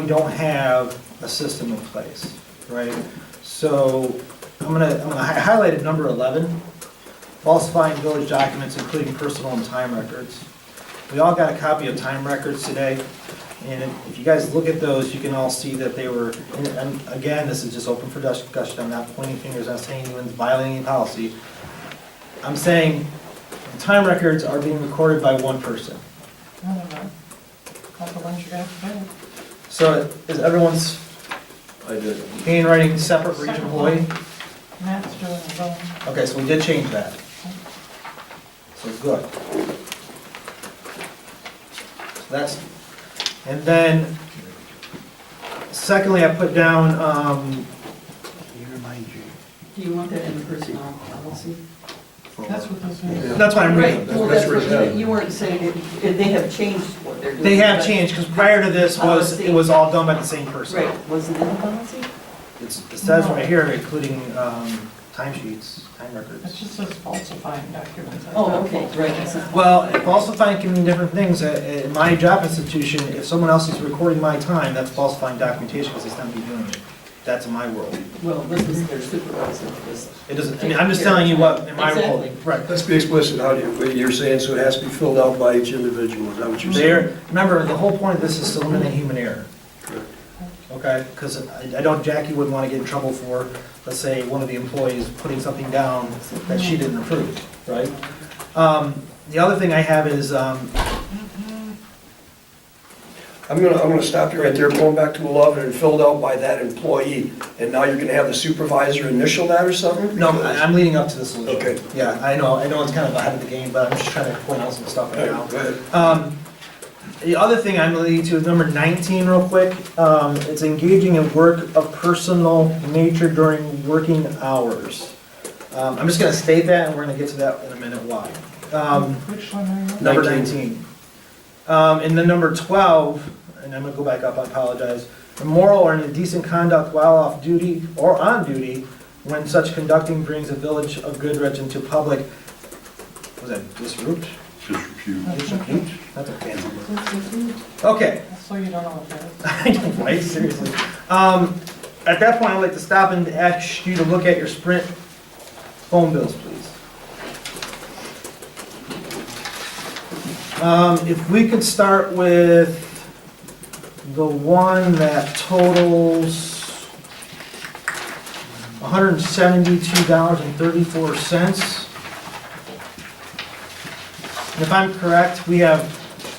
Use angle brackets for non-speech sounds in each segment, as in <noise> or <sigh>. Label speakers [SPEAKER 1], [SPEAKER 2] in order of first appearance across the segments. [SPEAKER 1] we don't have a system in place, right? So I'm gonna, I'm gonna hi- highlight at number 11, falsifying village documents, including personal and time records. We all got a copy of time records today, and if you guys look at those, you can all see that they were, and- and again, this is just open for discussion, I'm not pointing fingers, I'm not saying anyone's violating any policy. I'm saying time records are being recorded by one person.
[SPEAKER 2] I don't know. Couple ones you got today.
[SPEAKER 1] So is everyone's
[SPEAKER 3] I did.
[SPEAKER 1] handwriting separate for each employee?
[SPEAKER 2] Matt's doing his own.
[SPEAKER 1] Okay, so we did change that. So good. So That's, and then, secondly, I put down, um,
[SPEAKER 4] Do you want that in the personnel policy?
[SPEAKER 2] That's what this is.
[SPEAKER 1] that's what I'm
[SPEAKER 4] Right,
[SPEAKER 1] reading.
[SPEAKER 4] well,
[SPEAKER 3] That's
[SPEAKER 4] that's what,
[SPEAKER 3] written out.
[SPEAKER 4] you- you weren't saying it, they have changed what they're doing.
[SPEAKER 1] They have
[SPEAKER 4] but-
[SPEAKER 1] changed, because prior to this was, it was all done by the same person.
[SPEAKER 4] Right, wasn't in the policy?
[SPEAKER 1] It's, it says right here, including, um, timesheets, time records.
[SPEAKER 2] It just says falsifying documents. I
[SPEAKER 4] Oh,
[SPEAKER 2] thought
[SPEAKER 4] okay, right, that's not-
[SPEAKER 1] Well, falsifying can mean different things. At at my job institution, if someone else is recording my time, that's falsifying documentation because it's not me doing it. That's in my world.
[SPEAKER 4] well, this was their supervisor, this.
[SPEAKER 1] It doesn't, I mean, I'm just telling you what, in my world.
[SPEAKER 4] Exactly.
[SPEAKER 1] Right.
[SPEAKER 3] Let's be explicit, how do you, what you're saying, so it has to be filled out by each individual, is that what you're saying?
[SPEAKER 1] There, remember, the whole point of this is to eliminate human error,
[SPEAKER 3] Correct.
[SPEAKER 1] okay? Because I I don't, Jackie wouldn't want to get in trouble for, let's say, one of the employees putting something down that she didn't approve, right? Um, The other thing I have is, um,
[SPEAKER 3] I'm gonna, I'm gonna stop you right there, going back to eleven and filled out by that employee, and now you're gonna have the supervisor initial that or something?
[SPEAKER 1] No, I- I'm leading up to the solution.
[SPEAKER 3] Okay.
[SPEAKER 1] Yeah, I know, I know it's kind of ahead of the game, but I'm just trying to point out some stuff right now.
[SPEAKER 3] Go ahead.
[SPEAKER 1] Um, The other thing I'm leading to is number 19 real quick. Um, It's engaging in work of personal nature during working hours. Um, I'm just going to state that, and we're going to get to that in a minute why. Um,
[SPEAKER 2] Which one are you?
[SPEAKER 1] Number
[SPEAKER 3] 19.
[SPEAKER 1] 19. Um, And then number 12, and I'm going to go back up, I apologize. Immoral or indecent conduct while off duty or on duty when such conducting brings a village of Goodrich into public, was that disrupt? Disrepute. That's a fancy word. Okay, <laughs>
[SPEAKER 2] So you don't know what that is.
[SPEAKER 1] I know, right, seriously. Um, At that point, I'd like to stop and ask you to look at your Sprint phone bills, please. Um, If we could start with the one that totals $172.34. And If I'm correct, we have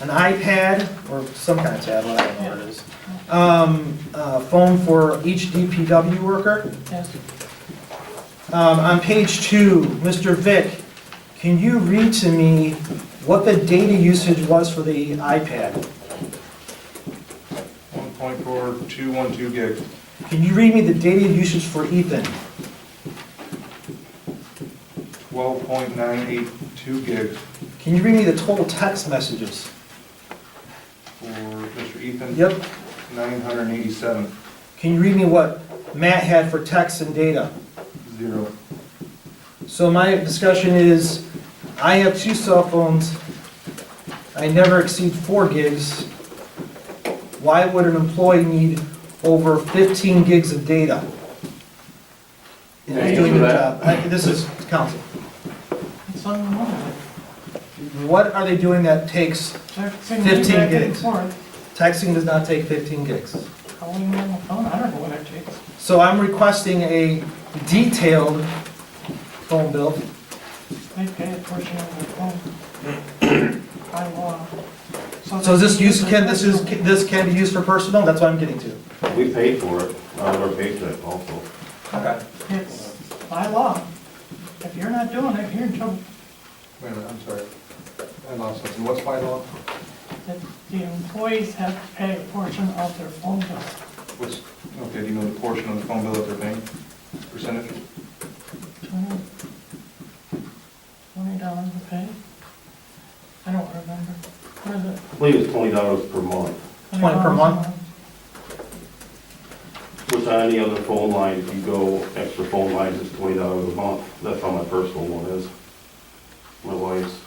[SPEAKER 1] an iPad or some kind of tablet, I don't know what it is. Um, uh, phone for each DPW worker.
[SPEAKER 2] Yes.
[SPEAKER 1] Um, on page two, Mr. Vick, can you read to me what the data usage was for the iPad?
[SPEAKER 5] 1.4212 gig.
[SPEAKER 1] Can you read me the data usage for Ethan?
[SPEAKER 5] 12.982 gig
[SPEAKER 1] Can you read me the total text messages?
[SPEAKER 5] for Mr. Ethan.
[SPEAKER 1] Yep.
[SPEAKER 5] 987,
[SPEAKER 1] Can you read me what Matt had for text and data?
[SPEAKER 5] zero.
[SPEAKER 1] So my discussion is, I have two cell phones, I never exceed four gigs. Why would an employee need over 15 gigs of data? And he's doing their job. I- This is council.
[SPEAKER 2] It's unlimited.
[SPEAKER 1] What are they doing that takes,
[SPEAKER 2] They're sending you
[SPEAKER 1] 15
[SPEAKER 2] back and
[SPEAKER 1] gigs.
[SPEAKER 2] forth,
[SPEAKER 1] texting does not take 15 gigs?
[SPEAKER 2] calling you on the phone. I don't know what it takes.
[SPEAKER 1] So I'm requesting a detailed phone bill.
[SPEAKER 2] They pay a portion of their phone. By law.
[SPEAKER 1] So is
[SPEAKER 2] they
[SPEAKER 1] this
[SPEAKER 2] can
[SPEAKER 1] use,
[SPEAKER 2] their
[SPEAKER 1] can, this is,
[SPEAKER 2] personal-
[SPEAKER 1] this can be used for personal? That's what I'm getting to.
[SPEAKER 6] We paid for it, out of our paycheck also.
[SPEAKER 1] Okay.
[SPEAKER 2] It's by law. If you're not doing it, you're in trouble.
[SPEAKER 5] Wait a minute, I'm sorry. I lost something. What's my law?
[SPEAKER 2] that the employees have to pay a portion of their phone bill,
[SPEAKER 5] What's, okay, do you know the portion of the phone bill that they're paying? Percentage?
[SPEAKER 2] twenty, twenty dollars a pay? I don't remember, what is it?
[SPEAKER 6] I believe it's twenty dollars per month,
[SPEAKER 1] $20 per
[SPEAKER 2] $20
[SPEAKER 1] month?
[SPEAKER 6] which on any other phone line, if you go extra phone lines, it's twenty dollars a month. That's how my personal one is. My wife's,